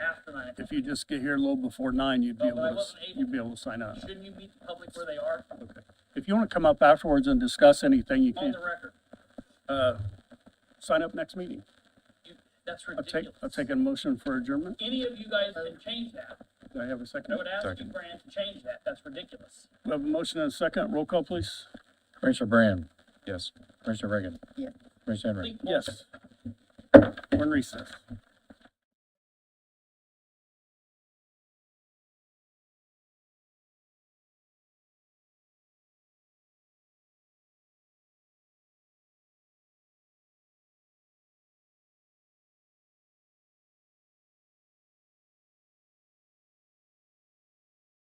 If you just get here a little before nine, you'd be No, but I able wasn't to, able you'd be to. able to sign up. Shouldn't you meet the public where they are Okay. If you want to come up afterwards and discuss anything, you on can, the record? uh, sign up next meeting. You, that's I'll take, ridiculous. I'll take a motion for adjournment. Any of you guys can change that. Do I have a I second? would ask you, Brand, to change that. That's ridiculous. We have a motion and a second. Roll call, please. Commissioner Brand, Yes. Commissioner Reagan. Yeah. Commissioner Henry. Think more. Yes. We're in recess.